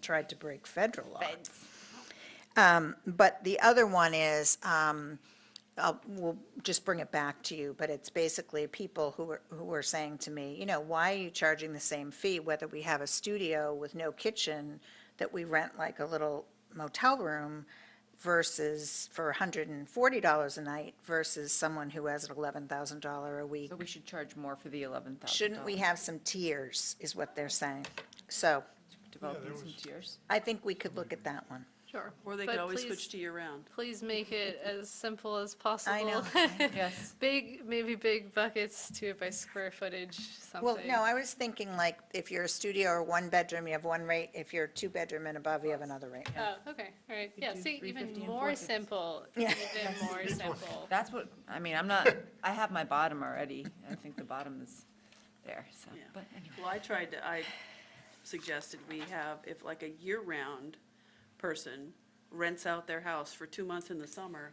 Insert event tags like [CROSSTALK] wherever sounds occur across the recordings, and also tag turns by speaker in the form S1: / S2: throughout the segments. S1: tried to break federal law. Um, But the other one is, um, I'll- we'll just bring it back to you, but it's basically people who are, who are saying to me, you know, why are you charging the same fee whether we have a studio with no kitchen that we rent like a little motel room versus for $140 a night versus someone who has an $11,000 a week?
S2: So we should charge more for the eleven thousand.
S1: Shouldn't we have some tiers, is what they're saying. So
S2: Developing some tiers.
S1: I think we could look at that one.
S3: Sure.
S4: Or they
S3: But
S4: could always
S3: please-
S4: switch to year-round.
S3: Please make it as simple as possible.
S1: know.
S2: Yes.
S3: [LAUGHS] Big, maybe big buckets, do it by square footage, something.
S1: Well, no, I was thinking like, if you're a studio or one bedroom, you have one rate, if you're two bedroom and above, you have another rate.
S3: Oh, okay, all right, yeah,
S2: do
S3: see,
S2: 350
S3: even
S2: and
S3: more
S2: 450.
S3: simple,
S1: Yeah.
S3: even more simple.
S2: That's what, I mean, I'm not, I have my bottom already. I think the bottom is there, so,
S4: Yeah.
S2: but anyway.
S4: Well, I tried to, I suggested we have, if like a year-round person rents out their house for two months in the summer,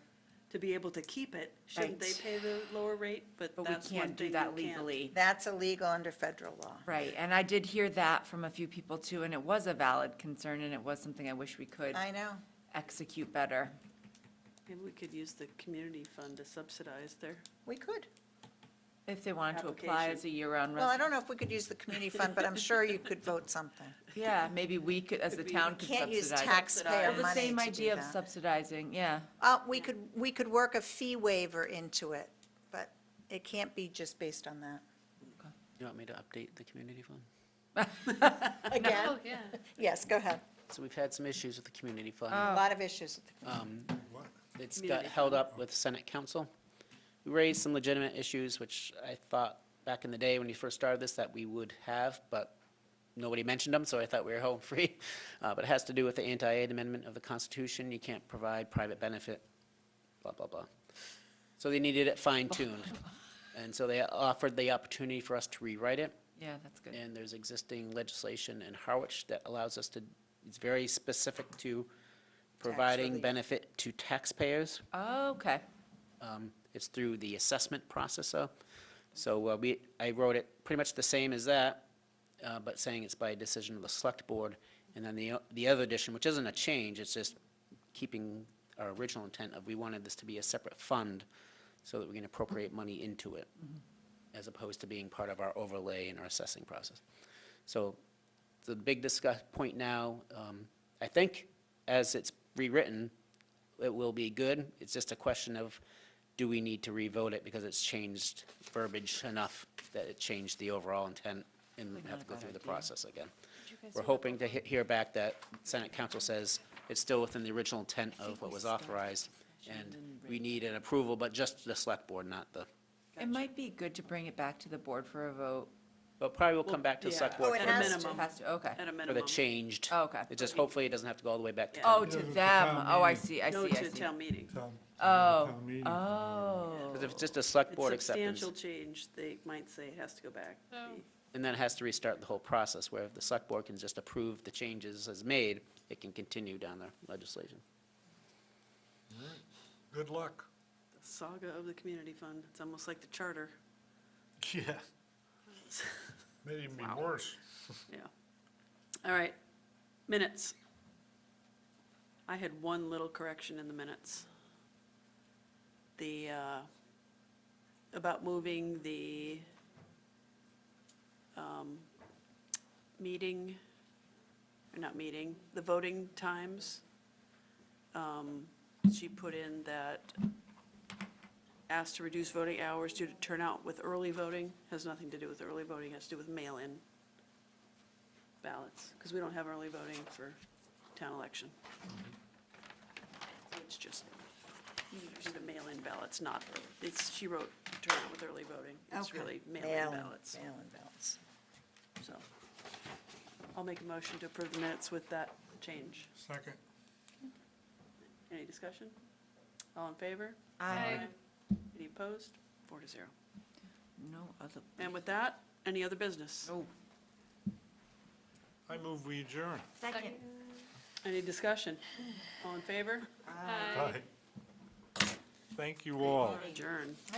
S4: to be able to keep it, shouldn't they
S2: Right.
S4: pay the lower rate? But
S2: But we
S4: that's one
S2: can't do
S4: thing
S2: that
S4: you can't.
S2: legally.
S1: That's illegal under federal law.
S2: Right, and I did hear that from a few people too, and it was a valid concern, and it was something I wish we could
S1: I know.
S2: execute better.
S4: Maybe we could use the community fund to subsidize their,
S1: We could.
S2: If they wanted to apply as a year-round
S1: Well, I
S2: resident,
S1: don't know if we could use the community fund, but I'm sure you could vote
S4: [LAUGHS]
S1: something.
S2: yeah, maybe we could, as the
S4: Could we-
S2: town could
S1: Can't use
S2: subsidize. it.
S1: taxpayer
S2: Well, The
S1: money
S2: same
S1: to do
S2: idea of
S1: that. [LAUGHS]
S2: subsidizing, yeah.
S1: Uh, we could, we could work a fee waiver into it, but it can't be just based on
S4: [LAUGHS]
S1: that.
S5: You want me to update the community fund?
S1: Again?
S3: Oh, yeah,
S1: Yes, go ahead.
S5: So we've had some issues with the community fund.
S2: Oh.
S5: Um,
S1: A lot of issues with the
S5: It's got held up with Senate Council. We raised some legitimate issues, which I thought back in the day when you first started this that we would have, but nobody mentioned them, so I thought we were home [LAUGHS] free. Uh, But it has to do with the anti-aid amendment of the Constitution. You can't provide private benefit, blah, blah, blah. So they needed it fine-tuned. And so they offered the opportunity for us to rewrite it.
S2: Yeah, that's good.
S5: And there's existing legislation in Harwich that allows us to, it's very specific to providing
S1: relief.
S5: benefit to taxpayers.
S2: Oh, Okay,
S5: Um, It's through the assessment process, though. So uh, we, I wrote it pretty much the same as that, uh, but saying it's by decision of the select board. And then the, o- the other addition, which isn't a change, it's just keeping our original intent of we wanted this to be a separate fund so that we can appropriate money into it, as opposed to being part of our overlay and our assessing process. So the big discuss, point now, um, I think, as it's rewritten, it will be good. It's just a question of, do we need to revote it because it's changed verbiage enough that it changed the overall intent and have to go through the process again? We're hoping to he- hear back that Senate Council says it's still within the original intent of what was authorized, and we need an approval, but just the select board, not the,
S2: it might be good to bring it back to the board for a voat.
S5: but probably we'll come back to the select
S1: Well,
S5: board
S1: yeah.
S4: at
S1: has
S4: a
S1: to.
S4: minimum,
S2: Has to, okay.
S4: at a
S5: for the
S4: minimum.
S5: changed.
S2: Oh, okay.
S5: It just, hopefully, it doesn't have to go all the way back to.
S4: Yeah.
S2: Oh,
S4: No,
S2: to
S6: to
S2: them,
S6: town
S2: oh, I
S6: meeting.
S2: see, I
S4: No
S2: see, I
S4: to
S2: see.
S4: town meeting.
S2: Oh,
S6: Town meeting.
S2: oh.
S5: Because if it's just a select
S4: It's
S5: board acceptance.
S4: Substantial change, they might say it has to go back.
S3: Oh.
S5: And then it has to restart the whole process, where if the select board can just approve the changes as made, it can continue down the legislation.
S6: Good luck.
S4: The Saga of the community fund, it's almost like the charter.
S6: Yeah. May even be worse.
S4: Yeah. All right, minutes. I had one little correction in the minutes. The, uh, about moving the, um, meeting, or not meeting, the voting times. Um, She put in that asked to reduce voting hours due to turnout with early voting, has nothing to do with early voting, has to do with mail-in ballots, because we don't have early voting for town election. It's just, usually the mail-in ballots, not, it's, she wrote turnout with early voting. It's
S1: Okay.
S4: really mail-in ballots,
S1: Mail-in ballots.
S4: so. I'll make a motion to approve the minutes with that change.
S6: Second.
S4: Any discussion? All in favor?
S2: I,
S4: Any opposed? Four to zero.
S2: no other.
S4: And with that, any other business?
S2: No.
S6: I move we adjourn.
S2: Second.
S4: Any discussion? All in favor?
S3: Aye.
S6: Aye. Thank you all.
S4: Adjourn.